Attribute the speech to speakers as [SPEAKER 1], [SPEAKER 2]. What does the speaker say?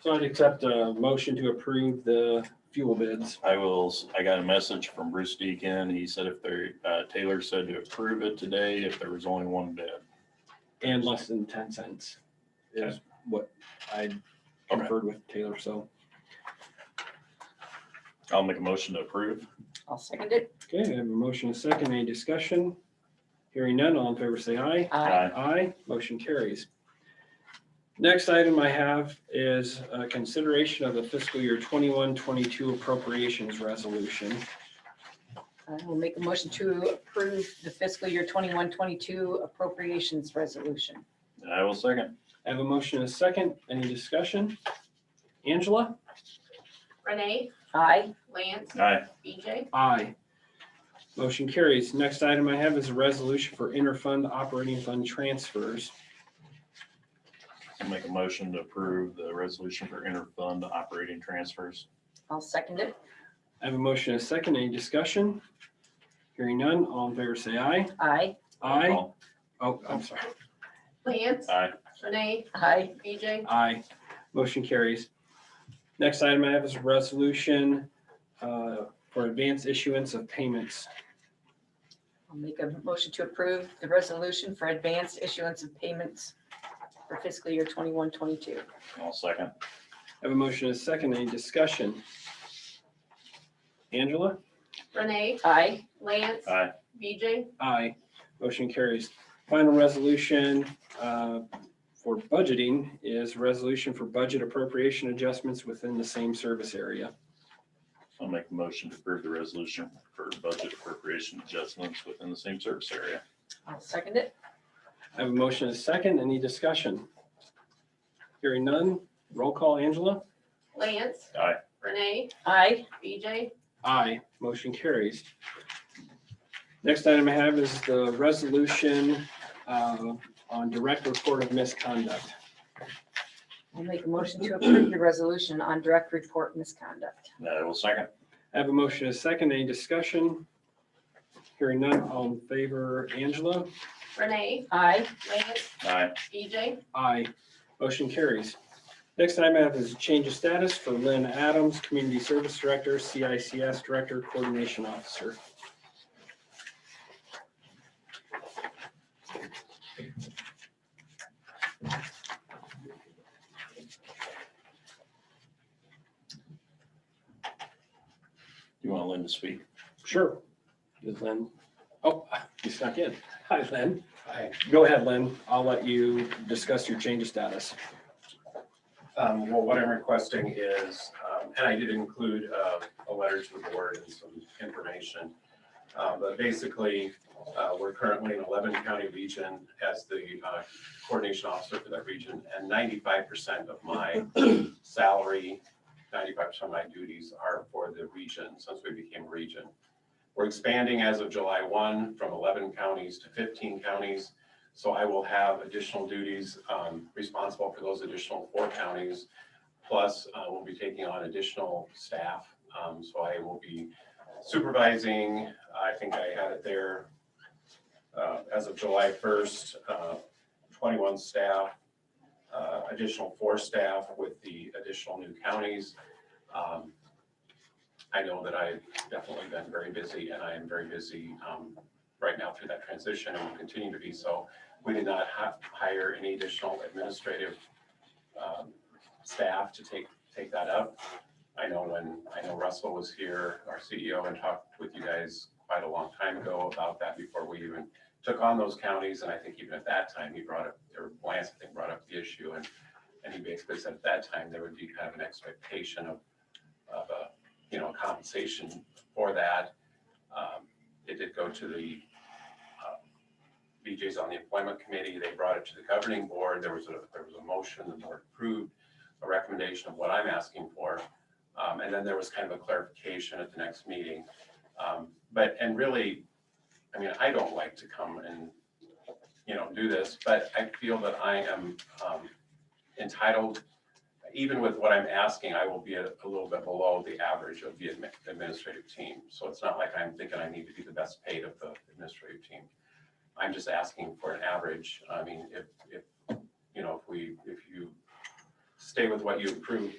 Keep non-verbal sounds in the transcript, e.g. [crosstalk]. [SPEAKER 1] So I'd accept a motion to approve the fuel bids.
[SPEAKER 2] I will, s- I got a message from Bruce Deacon. He said if there, uh, Taylor said to approve it today if there was only one bid.
[SPEAKER 1] And less than ten cents is what I conferred with Taylor, so.
[SPEAKER 2] I'll make a motion to approve.
[SPEAKER 3] I'll second it.
[SPEAKER 1] Okay, I have a motion, and a second, any discussion? Hearing none, all in favor say aye.
[SPEAKER 3] Aye.
[SPEAKER 1] Aye, motion carries. Next item I have is uh, consideration of the fiscal year 21-22 appropriations resolution.
[SPEAKER 3] I will make a motion to approve the fiscal year 21-22 appropriations resolution.
[SPEAKER 2] And I will second.
[SPEAKER 1] I have a motion, and a second, any discussion? Angela?
[SPEAKER 4] Renee,
[SPEAKER 3] Aye.
[SPEAKER 4] Lance,
[SPEAKER 2] Aye.
[SPEAKER 4] BJ,
[SPEAKER 1] Aye. Motion carries. Next item I have is a resolution for interfund operating fund transfers.
[SPEAKER 2] I'll make a motion to approve the resolution for interfund operating transfers.
[SPEAKER 3] I'll second it.
[SPEAKER 1] I have a motion, and a second, any discussion? Hearing none, all in favor say aye.
[SPEAKER 3] Aye.
[SPEAKER 1] Aye.
[SPEAKER 2] Roll
[SPEAKER 1] Oh, I'm sorry.
[SPEAKER 4] Lance,
[SPEAKER 2] call. Aye.
[SPEAKER 4] Renee,
[SPEAKER 3] Aye.
[SPEAKER 4] BJ,
[SPEAKER 1] Aye. Motion carries. Next item I have is a resolution uh, for advance issuance of payments.
[SPEAKER 3] I'll make a motion to approve the resolution for advanced issuance of payments for fiscal year 21-22.
[SPEAKER 2] I'll second.
[SPEAKER 1] I have a motion, and a second, any discussion? Angela?
[SPEAKER 4] Renee,
[SPEAKER 3] Aye.
[SPEAKER 4] Lance,
[SPEAKER 2] Aye.
[SPEAKER 4] BJ,
[SPEAKER 1] Aye. Motion carries. Final resolution uh, for budgeting is resolution for budget appropriation adjustments within the same service area.
[SPEAKER 2] I'll make a motion to approve the resolution for budget appropriation adjustments within the same service area.
[SPEAKER 3] I'll second it.
[SPEAKER 1] I have a motion and a second. Any discussion? Hearing none. Roll call, Angela?
[SPEAKER 4] Lance.
[SPEAKER 2] Aye.
[SPEAKER 4] Renee,
[SPEAKER 3] Aye.
[SPEAKER 4] BJ,
[SPEAKER 1] Aye. Motion carries. Next item I have is the resolution uh, on direct report of misconduct.
[SPEAKER 3] I'll make a motion to approve the resolution on direct report misconduct.
[SPEAKER 2] And I will second.
[SPEAKER 1] I have a motion and a second. Any discussion? Hearing none. All in favor, Angela?
[SPEAKER 4] Renee,
[SPEAKER 3] Aye.
[SPEAKER 4] Lance,
[SPEAKER 2] Aye.
[SPEAKER 4] BJ,
[SPEAKER 1] Aye. Motion carries. Next item I have is change of status for Lynn Adams, Community Service Director, CICS Director, Coordination Officer.
[SPEAKER 2] You want Lynn to speak?
[SPEAKER 1] Sure. Is Lynn? Oh, [laughs] you snuck in. Hi, Lynn. Hi. Go ahead, Lynn. I'll let you discuss your change of status.
[SPEAKER 5] Um, well, what I'm requesting is, um, and I did include, uh, a letter to the board and some information. Uh, but basically, uh, we're currently an eleven county region as the, uh, coordination officer for that region. And ninety-five percent of my salary, ninety-five percent of my duties are for the region, since we became a region. We're expanding as of July one from eleven counties to fifteen counties. So I will have additional duties um, responsible for those additional four counties. Plus, uh, we'll be taking on additional staff. Um, So I will be supervising, I think I had it there uh, as of July 1st, uh, 21 staff, uh, additional four staff with the additional new counties. Um, I know that I've definitely been very busy and I am very busy um, right now through that transition and will continue to be so. We did not hi- hire any additional administrative um, staff to take, take that up. I know when, I know Russell was here, our CEO, and talked with you guys quite a long time ago about that before we even took on those counties. And I think even at that time, he brought up, or Lance, I think, brought up the issue. And, and he basically said at that time, there would be kind of an expectation of, of a, you know, compensation for that. Um, It did go to the BJ's on the employment committee, they brought it to the governing board, there was a, there was a motion, the board approved a recommendation of what I'm asking for. Um, and then there was kind of a clarification at the next meeting. Um, but, and really, I mean, I don't like to come and, you know, do this, but I feel that I am, um, entitled, even with what I'm asking, I will be a, a little bit below the average of the admi- administrative team. So it's not like I'm thinking I need to be the best paid of the administrative team. I'm just asking for an average. I mean, if, if, you know, if we, if you stay with what you approved